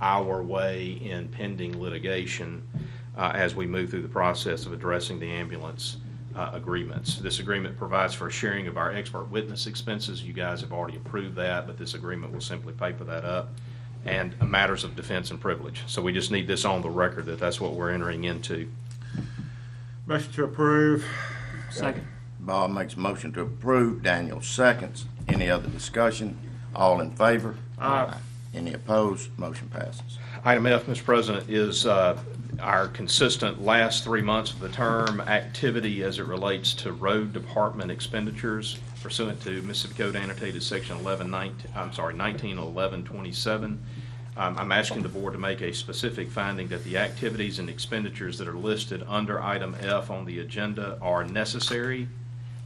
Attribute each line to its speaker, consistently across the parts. Speaker 1: our way in pending litigation uh, as we move through the process of addressing the ambulance uh, agreements. This agreement provides for a sharing of our expert witness expenses. You guys have already approved that, but this agreement will simply paper that up. And matters of defense and privilege. So we just need this on the record that that's what we're entering into.
Speaker 2: Motion to approve.
Speaker 3: Second.
Speaker 4: Bob makes a motion to approve, Daniel seconds. Any other discussion? All in favor?
Speaker 2: Aye.
Speaker 4: Any opposed? Motion passes.
Speaker 1: Item F, Mr. President, is uh, our consistent last three months of the term activity as it relates to road department expenditures pursuant to Mississippi Code annotated section 11, 19 I'm sorry, 191127. Um, I'm asking the board to make a specific finding that the activities and expenditures that are listed under item F on the agenda are necessary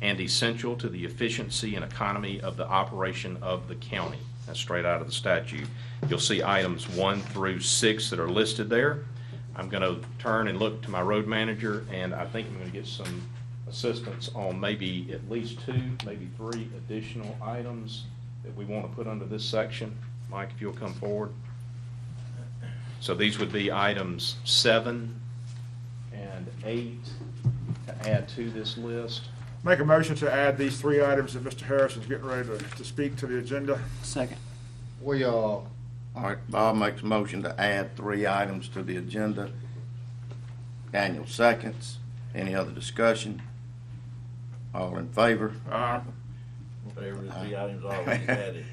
Speaker 1: and essential to the efficiency and economy of the operation of the county. That's straight out of the statute. You'll see items one through six that are listed there. I'm going to turn and look to my road manager, and I think I'm going to get some assistance on maybe at least two, maybe three additional items that we want to put under this section. Mike, if you'll come forward. So these would be items seven and eight to add to this list.
Speaker 2: Make a motion to add these three items that Mr. Harrison's getting ready to, to speak to the agenda.
Speaker 3: Second.
Speaker 5: We, uh, all
Speaker 4: All right, Bob makes a motion to add three items to the agenda. Daniel seconds. Any other discussion? All in favor?
Speaker 2: Uh,
Speaker 6: Favorite three items already added.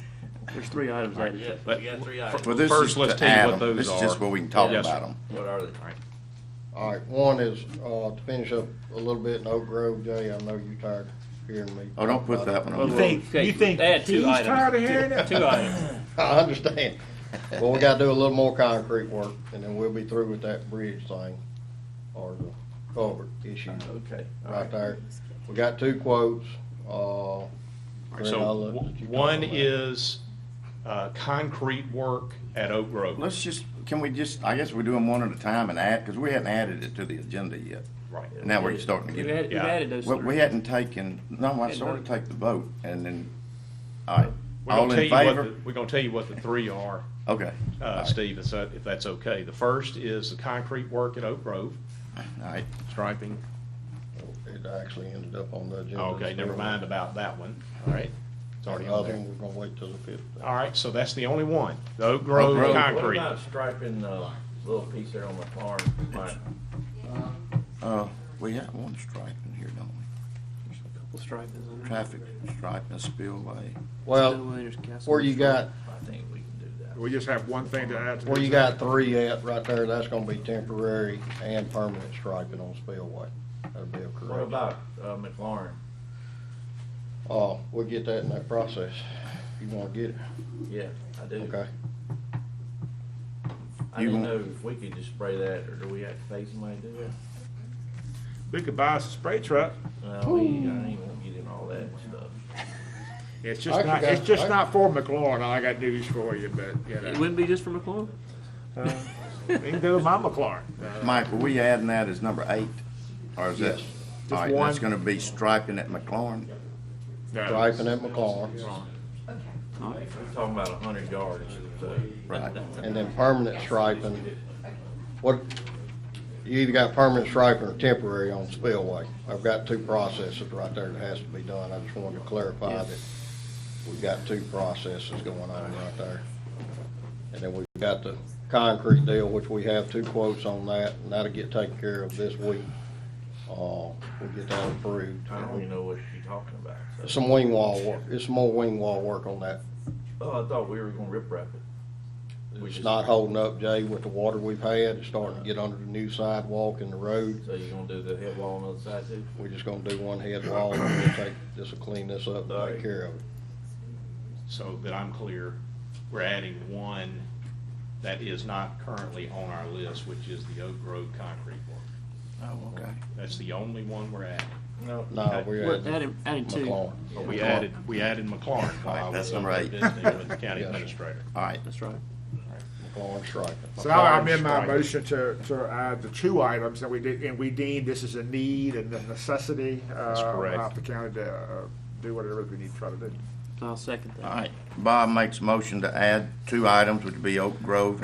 Speaker 3: There's three items added.
Speaker 6: Yes, we got three items.
Speaker 4: Well, this is
Speaker 1: First, let's
Speaker 4: to
Speaker 1: tell you
Speaker 4: add
Speaker 1: what
Speaker 4: 'em.
Speaker 1: those
Speaker 4: This is
Speaker 1: are.
Speaker 4: just where we can talk
Speaker 1: Yes, sir.
Speaker 4: about them.
Speaker 6: What are they?
Speaker 5: right, one is, uh, to finish up a little bit in Oak Grove, Jay, I know you're tired of hearing me.
Speaker 4: Oh, don't put that one on.
Speaker 2: You think, you think
Speaker 6: Add
Speaker 2: he's
Speaker 6: two
Speaker 2: tired of
Speaker 6: items.
Speaker 2: hearing it?
Speaker 6: Two items.
Speaker 5: I understand, but we gotta do a little more concrete work, and then we'll be through with that bridge thing, or the culvert
Speaker 1: Uh,
Speaker 5: issue
Speaker 6: Okay.
Speaker 5: right there. We got two quotes, uh. Greg,
Speaker 1: So
Speaker 5: I'll let
Speaker 1: w-
Speaker 5: you talk
Speaker 1: one
Speaker 5: about it.
Speaker 1: is uh, concrete work at Oak Grove.
Speaker 4: Let's just, can we just, I guess we do them one at a time and add, because we hadn't added it to the agenda yet.
Speaker 1: Right.
Speaker 4: Now we're starting to
Speaker 3: We've
Speaker 4: get,
Speaker 3: added, we've added those
Speaker 4: we, we
Speaker 3: three.
Speaker 4: hadn't taken, no, I sort of take the vote and then, all right.
Speaker 1: We're
Speaker 4: All
Speaker 1: gonna
Speaker 4: in
Speaker 1: tell you what,
Speaker 4: favor?
Speaker 1: the- we're gonna tell you what the three are,
Speaker 4: Okay. All
Speaker 1: uh,
Speaker 4: right.
Speaker 1: Steve, if that- if that's okay. The first is the concrete work at Oak Grove,
Speaker 4: All right.
Speaker 1: striping.
Speaker 5: It actually ended up on the agenda.
Speaker 1: Okay,
Speaker 5: this
Speaker 1: never
Speaker 5: morning.
Speaker 1: mind about that one, all right? It's already on
Speaker 5: Another
Speaker 1: there.
Speaker 5: one, we're gonna wait till the fifth.
Speaker 1: All right, so that's the only one, the Oak Grove
Speaker 4: Grove.
Speaker 6: What
Speaker 1: concrete.
Speaker 6: about striping, uh, little piece there on the farm? Mike?
Speaker 4: Uh, we have one stripe in here, don't we?
Speaker 3: Couple stripes on there.
Speaker 4: Traffic stripe and spillway.
Speaker 5: Well, where you got,
Speaker 6: I think we can do that.
Speaker 2: We just have one thing to add to the.
Speaker 5: where you
Speaker 2: agenda.
Speaker 5: got three at, right there, that's gonna be temporary and permanent striping on spillway. That'll be a
Speaker 6: What
Speaker 5: correction.
Speaker 6: about, uh, McLaurin?
Speaker 5: Oh, we'll get that in that process. You wanna get it?
Speaker 6: Yeah, I do.
Speaker 5: Okay.
Speaker 6: I
Speaker 4: You
Speaker 6: didn't know
Speaker 4: want-
Speaker 6: if we could just spray that, or do we have to pay somebody to do it?
Speaker 2: We could buy us a spray truck.
Speaker 6: No, we, I ain't gonna get in all that stuff.
Speaker 2: It's just
Speaker 5: I
Speaker 2: not,
Speaker 5: forgot-
Speaker 2: it's just
Speaker 5: I-
Speaker 2: not for McLaurin. I got news for you, but, you
Speaker 3: It
Speaker 2: know,
Speaker 3: wouldn't be just for McLaurin?
Speaker 2: we can do my McLaurin.
Speaker 4: Mike, are we adding that as number eight? Or is that?
Speaker 5: Yes.
Speaker 4: All right,
Speaker 2: one.
Speaker 4: that's gonna be striping at McLaurin.
Speaker 2: No.
Speaker 5: Striping at McLaurin
Speaker 6: We're talking about a hundred yards, uh, so.
Speaker 4: Right.
Speaker 5: and then permanent striping. What, you either got permanent striping or temporary on spillway. I've got two processes right there that has to be done. I just wanted to clarify that we've got two processes going on right there. And then we've got the concrete deal, which we have two quotes on that, and that'll get taken care of this week. Uh, we'll get that approved.
Speaker 6: I don't even know what you're talking about, so.
Speaker 5: Some wing wall work, it's some more wing wall work on that.
Speaker 6: Oh, I thought we were gonna rip wrap it. We
Speaker 5: It's
Speaker 6: just-
Speaker 5: not holding up, Jay, with the water we've had. It's starting to get under the new sidewalk and the road.
Speaker 6: So you're gonna do the head wall on the other side too?
Speaker 5: We're just gonna do one head wall and we'll take, this'll clean this up and
Speaker 6: Alright.
Speaker 5: take care of it.
Speaker 1: So that I'm clear, we're adding one that is not currently on our list, which is the Oak Grove concrete work.
Speaker 4: Oh, okay.
Speaker 1: That's the only one we're adding.
Speaker 6: No.
Speaker 5: No, we're
Speaker 3: We're
Speaker 5: adding
Speaker 3: adding, adding two.
Speaker 5: McLaurin.
Speaker 1: But we added, we added McLaurin.
Speaker 4: Right,
Speaker 1: uh,
Speaker 4: that's
Speaker 1: with
Speaker 4: number
Speaker 1: the
Speaker 4: eight.
Speaker 1: Disney With the county
Speaker 5: Yes.
Speaker 1: administrator.
Speaker 4: All right,
Speaker 3: That's right.
Speaker 5: McLaurin striping.
Speaker 2: So I amend my
Speaker 1: Strike.
Speaker 2: motion to, to add the two items that we did, and we deem this is a need and a necessity. uh, That's
Speaker 1: correct.
Speaker 2: Allow the county to uh, do whatever we need to try to do.
Speaker 3: I'll second that.
Speaker 4: all right. Bob makes a motion to add two items, which would be Oak Grove